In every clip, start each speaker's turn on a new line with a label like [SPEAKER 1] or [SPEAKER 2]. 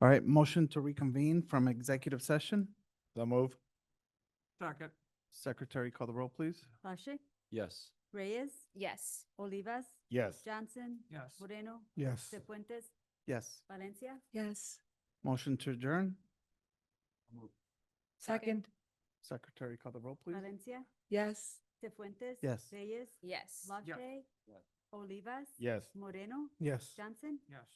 [SPEAKER 1] All right, motion to reconvene from executive session.
[SPEAKER 2] So move?
[SPEAKER 3] Second.
[SPEAKER 1] Secretary, call the roll, please.
[SPEAKER 4] Pache,
[SPEAKER 2] Yes.
[SPEAKER 4] Reyes,
[SPEAKER 5] Yes.
[SPEAKER 4] Olivas,
[SPEAKER 2] Yes.
[SPEAKER 4] Johnson,
[SPEAKER 3] Yes.
[SPEAKER 4] Moreno,
[SPEAKER 1] Yes.
[SPEAKER 4] De Fuentes,
[SPEAKER 1] Yes.
[SPEAKER 4] Valencia.
[SPEAKER 6] Yes.
[SPEAKER 1] Motion to adjourn.
[SPEAKER 6] Second.
[SPEAKER 1] Secretary, call the roll, please.
[SPEAKER 4] Valencia,
[SPEAKER 6] Yes.
[SPEAKER 4] De Fuentes.
[SPEAKER 1] Yes.
[SPEAKER 4] Reyes,
[SPEAKER 5] Yes.
[SPEAKER 4] Lache,
[SPEAKER 2] Yes.
[SPEAKER 4] Olivas.
[SPEAKER 2] Yes.
[SPEAKER 4] Moreno,
[SPEAKER 1] Yes.
[SPEAKER 4] Johnson.
[SPEAKER 3] Yes.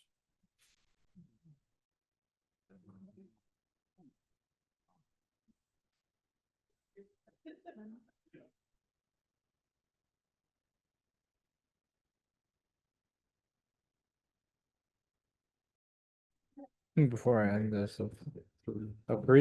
[SPEAKER 7] Before I end this, of- of Korean